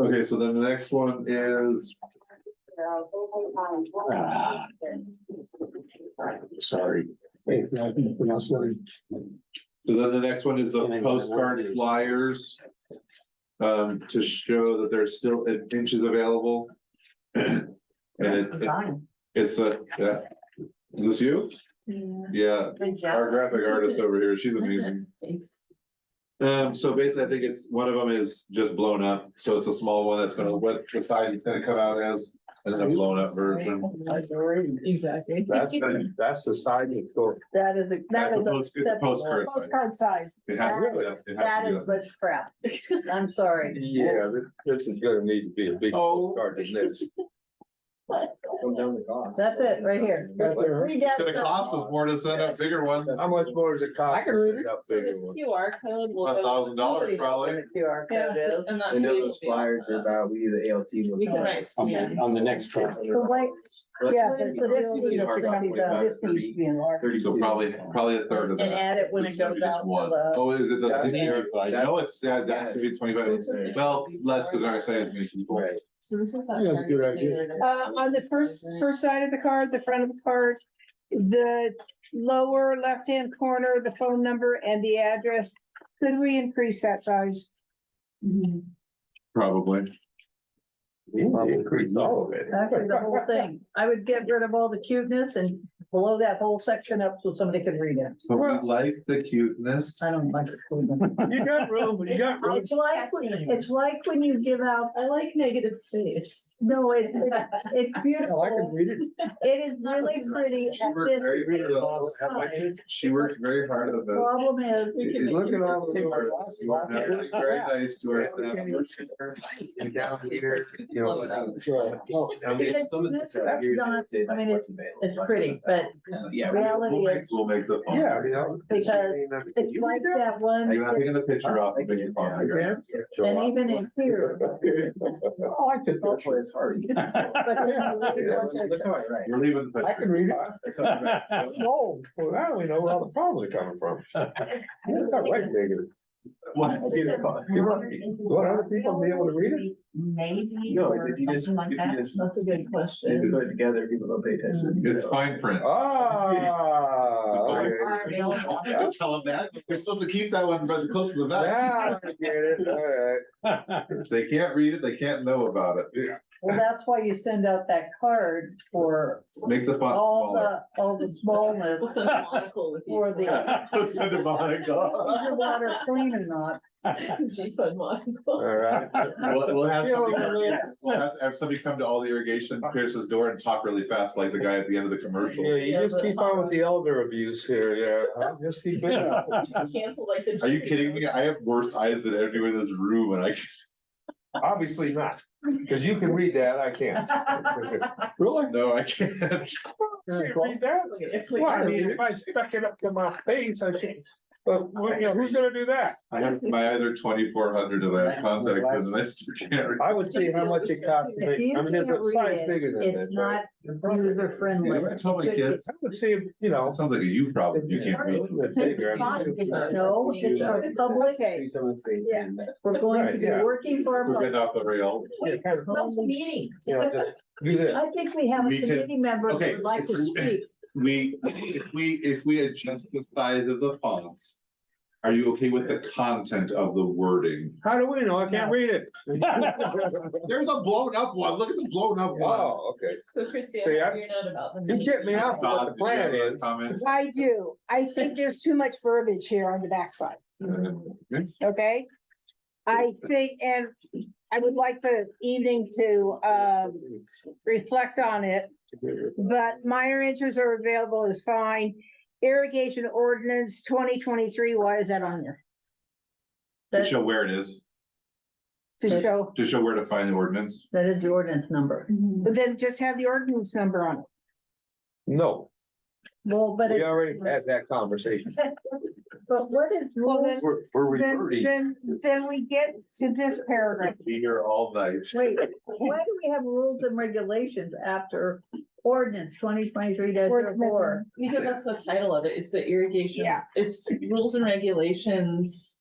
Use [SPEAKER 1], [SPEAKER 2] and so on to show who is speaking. [SPEAKER 1] Okay, so then the next one is,
[SPEAKER 2] Ah. Sorry.
[SPEAKER 3] Hey, no, I think we also already-
[SPEAKER 1] so then the next one is the postcard flyers. Um, to show that there's still inches available. And it, it-
[SPEAKER 4] Fine.
[SPEAKER 1] it's a, yeah. Is this you? Yeah,
[SPEAKER 4] Good job.
[SPEAKER 1] our graphic artist over here, she's amazing.
[SPEAKER 4] Thanks.
[SPEAKER 1] Um, so basically, I think it's, one of them is just blown up, so it's a small one that's gonna, what the side it's gonna come out as, as a blown up version.
[SPEAKER 4] Exactly.
[SPEAKER 2] That's, the- that's the side that's going.
[SPEAKER 5] That is, a- that
[SPEAKER 1] That's
[SPEAKER 5] is
[SPEAKER 1] a post- it's a
[SPEAKER 5] a
[SPEAKER 1] postcard size.
[SPEAKER 5] postcard size.
[SPEAKER 1] It has
[SPEAKER 5] That-
[SPEAKER 1] to, be- it has
[SPEAKER 5] That
[SPEAKER 1] to
[SPEAKER 5] is such crap. I'm sorry.
[SPEAKER 2] Yeah, thi- this is gonna need to be a big
[SPEAKER 1] Oh.
[SPEAKER 2] postcard to this.
[SPEAKER 5] That's it, right here.
[SPEAKER 3] Right there.
[SPEAKER 5] Read
[SPEAKER 1] be. It's gonna
[SPEAKER 5] that.
[SPEAKER 1] cost us more to send out bigger ones,
[SPEAKER 2] How
[SPEAKER 1] a
[SPEAKER 2] much more does it cost?
[SPEAKER 3] I can read it.
[SPEAKER 2] to
[SPEAKER 6] So
[SPEAKER 2] set up bigger
[SPEAKER 6] this
[SPEAKER 2] ones?
[SPEAKER 6] QR code will. go-
[SPEAKER 1] thousand dollars probably.
[SPEAKER 5] QR
[SPEAKER 6] Yeah,
[SPEAKER 5] code is.
[SPEAKER 6] And that
[SPEAKER 7] And
[SPEAKER 6] video
[SPEAKER 7] those
[SPEAKER 6] will be on
[SPEAKER 7] flyers are
[SPEAKER 6] the-
[SPEAKER 7] about, we do the ALT.
[SPEAKER 6] We can, write-
[SPEAKER 7] on the-
[SPEAKER 6] yeah.
[SPEAKER 7] on the next truck.
[SPEAKER 5] But wait,
[SPEAKER 7] Let's-
[SPEAKER 5] yeah, but but this
[SPEAKER 7] let's
[SPEAKER 5] needs
[SPEAKER 7] see
[SPEAKER 5] to
[SPEAKER 7] if our
[SPEAKER 5] be done.
[SPEAKER 7] document
[SPEAKER 5] This needs to be enlarged.
[SPEAKER 1] So probably, probably a third of that.
[SPEAKER 5] and add it when it
[SPEAKER 1] It's gonna be
[SPEAKER 5] goes
[SPEAKER 1] just
[SPEAKER 5] out to
[SPEAKER 1] one.
[SPEAKER 5] the-
[SPEAKER 1] Oh, is it, that's
[SPEAKER 7] That's-
[SPEAKER 1] easier, I know it's sad, that should be twenty five,
[SPEAKER 6] That's-
[SPEAKER 1] well, less, cause I'm excited to meet people.
[SPEAKER 7] Right.
[SPEAKER 6] So this is. that
[SPEAKER 3] Yeah, that's a good
[SPEAKER 6] kind of thing
[SPEAKER 3] idea.
[SPEAKER 6] that-
[SPEAKER 8] Uh, on the first, first side of the card, the front of the card, the lower left-hand corner, the phone number and the address. Could we increase that size?
[SPEAKER 1] Probably.
[SPEAKER 2] We need to Increase all of it.
[SPEAKER 5] Actually, the whole thing. I would get rid of all the cuteness and blow that whole section up so somebody could read it.
[SPEAKER 1] But we like the cuteness.
[SPEAKER 5] I don't like the cuteness.
[SPEAKER 2] You got room, you got room.
[SPEAKER 5] It's like, when- it's like when you give out,
[SPEAKER 6] I like negative space.
[SPEAKER 5] no, it, it's
[SPEAKER 3] Hell, I can
[SPEAKER 5] beautiful.
[SPEAKER 3] read it.
[SPEAKER 5] It is really pretty
[SPEAKER 1] She
[SPEAKER 5] at
[SPEAKER 1] worked
[SPEAKER 5] this.
[SPEAKER 1] very hard on
[SPEAKER 5] size.
[SPEAKER 1] that. She worked very hard on this.
[SPEAKER 5] Problem is,
[SPEAKER 6] We can make
[SPEAKER 1] Look
[SPEAKER 6] it
[SPEAKER 1] at all the
[SPEAKER 3] Take my
[SPEAKER 1] doors.
[SPEAKER 3] glasses
[SPEAKER 1] You
[SPEAKER 3] off.
[SPEAKER 1] have to be Very nice to our staff.
[SPEAKER 7] And down here, you know, down the
[SPEAKER 3] Sure.
[SPEAKER 7] truck.
[SPEAKER 3] No,
[SPEAKER 7] I mean,
[SPEAKER 5] Because
[SPEAKER 7] some of the
[SPEAKER 5] this
[SPEAKER 7] stuff here
[SPEAKER 5] represents-
[SPEAKER 7] that-
[SPEAKER 5] I mean,
[SPEAKER 7] what's available.
[SPEAKER 5] it's pretty, but
[SPEAKER 7] Yeah. we-
[SPEAKER 5] reality
[SPEAKER 1] We'll make,
[SPEAKER 5] is-
[SPEAKER 1] we'll make the. phone.
[SPEAKER 2] Yeah, you know.
[SPEAKER 5] Because it's like that
[SPEAKER 1] You're
[SPEAKER 5] one,
[SPEAKER 1] not taking the picture off of it.
[SPEAKER 2] Yeah.
[SPEAKER 5] and even in here,
[SPEAKER 3] I
[SPEAKER 7] Oh,
[SPEAKER 3] like the
[SPEAKER 7] Hopefully
[SPEAKER 3] picture.
[SPEAKER 7] it's hard.
[SPEAKER 5] but then you read what's there.
[SPEAKER 7] Right.
[SPEAKER 1] We're leaving. the
[SPEAKER 3] I
[SPEAKER 1] picture.
[SPEAKER 3] can read it.
[SPEAKER 2] No, well, now we know where all the problems are coming from. It's not like negative.
[SPEAKER 1] What?
[SPEAKER 2] What, other people be able to read it?
[SPEAKER 4] Maybe
[SPEAKER 7] No,
[SPEAKER 4] or
[SPEAKER 7] if you just,
[SPEAKER 4] something like
[SPEAKER 7] if
[SPEAKER 4] that.
[SPEAKER 7] you just.
[SPEAKER 6] That's a good
[SPEAKER 7] If you
[SPEAKER 6] question.
[SPEAKER 7] put it together, people don't pay attention.
[SPEAKER 1] It's fine print.
[SPEAKER 3] Uh,
[SPEAKER 2] Ah.
[SPEAKER 1] Fine.
[SPEAKER 4] Are available.
[SPEAKER 1] Don't Tell them that. We're supposed to keep that one rather close to the back.
[SPEAKER 2] Yeah, I get it, all right.
[SPEAKER 1] If They can't read it, they can't know about it.
[SPEAKER 5] Well, that's why you send out that card for
[SPEAKER 1] Make the font
[SPEAKER 5] all
[SPEAKER 1] smaller.
[SPEAKER 5] the, all the smallness.
[SPEAKER 6] We'll send a monocle with you.
[SPEAKER 5] For the-
[SPEAKER 1] Don't Send it behind God.
[SPEAKER 5] Underwater clean or not,
[SPEAKER 6] G fund monocle.
[SPEAKER 2] All right.
[SPEAKER 1] We'll, we'll have somebody, we'll have, have somebody come to all the irrigation, Pierce's door and talk really fast like the guy at the end of the
[SPEAKER 2] Yeah,
[SPEAKER 1] commercial.
[SPEAKER 2] you just keep on with the elder abuse here, yeah, huh? just keep it up.
[SPEAKER 6] Cancel like the.
[SPEAKER 1] Are you kidding me? I have worse eyes than everyone in this room and I,
[SPEAKER 2] Obviously not, because you can read that, I can't.
[SPEAKER 3] Really?
[SPEAKER 1] no, I can't.
[SPEAKER 2] Can't read that?
[SPEAKER 6] Look at it.
[SPEAKER 2] Well, I mean, if I stuck it up to my face, I can't, but, well, you know, who's gonna do that?
[SPEAKER 1] I have my other twenty-four hundred and I have contacts and I still can't read.
[SPEAKER 2] I would see how much it costs to
[SPEAKER 5] if
[SPEAKER 2] make,
[SPEAKER 5] you
[SPEAKER 2] I mean,
[SPEAKER 5] can't
[SPEAKER 2] it's a size
[SPEAKER 5] read
[SPEAKER 2] bigger
[SPEAKER 5] it,
[SPEAKER 2] than this.
[SPEAKER 5] it's not user
[SPEAKER 1] Yeah,
[SPEAKER 5] friendly.
[SPEAKER 1] I told my kids,
[SPEAKER 2] I would see, you know.
[SPEAKER 1] that sounds like a you problem. You can't read.
[SPEAKER 5] No, it's our public,
[SPEAKER 2] Okay.
[SPEAKER 5] Yeah. we're going to be
[SPEAKER 2] Right, yeah.
[SPEAKER 5] working for
[SPEAKER 1] We're
[SPEAKER 5] our
[SPEAKER 1] getting
[SPEAKER 5] public.
[SPEAKER 1] off the rail.
[SPEAKER 4] Meeting.
[SPEAKER 2] You know, just do this.
[SPEAKER 5] I think we have a
[SPEAKER 1] We can-
[SPEAKER 5] committee member that
[SPEAKER 1] okay,
[SPEAKER 5] would like to speak.
[SPEAKER 1] We, if we, if we adjust the size of the fonts, are you okay with the content of the wording?
[SPEAKER 2] How do we know? I can't read it.
[SPEAKER 1] There's a blown up one. Look at the blown up one.
[SPEAKER 2] Oh, okay.
[SPEAKER 6] So Christian,
[SPEAKER 2] See, I-
[SPEAKER 6] you're not about the.
[SPEAKER 2] You tipped me off what the plan is.
[SPEAKER 1] Comments?
[SPEAKER 8] I do. I think there's too much verbiage here on the backside, okay? I think, and I would like the evening to, um, reflect on it. but minor interests are available is fine. Irrigation ordinance twenty twenty-three, why is that on there?
[SPEAKER 1] To
[SPEAKER 5] That,
[SPEAKER 1] show where it is,
[SPEAKER 8] To show,
[SPEAKER 1] to show where to find the ordinance.
[SPEAKER 5] that is the ordinance number.
[SPEAKER 8] but then just have the ordinance number on it.
[SPEAKER 2] No,
[SPEAKER 5] Well, but
[SPEAKER 2] we
[SPEAKER 5] it's,
[SPEAKER 2] already had that conversation.
[SPEAKER 5] but what is
[SPEAKER 8] Well, then,
[SPEAKER 1] We're, we're
[SPEAKER 8] then,
[SPEAKER 1] reverting.
[SPEAKER 8] then, then we get to this paragraph.
[SPEAKER 1] Be here all night.
[SPEAKER 5] Wait, why do we have rules and regulations after ordinance twenty twenty-three oh 4
[SPEAKER 8] Words missing.
[SPEAKER 6] Because that's the title of it, it's the irrigation.
[SPEAKER 8] Yeah.
[SPEAKER 6] It's rules and regulations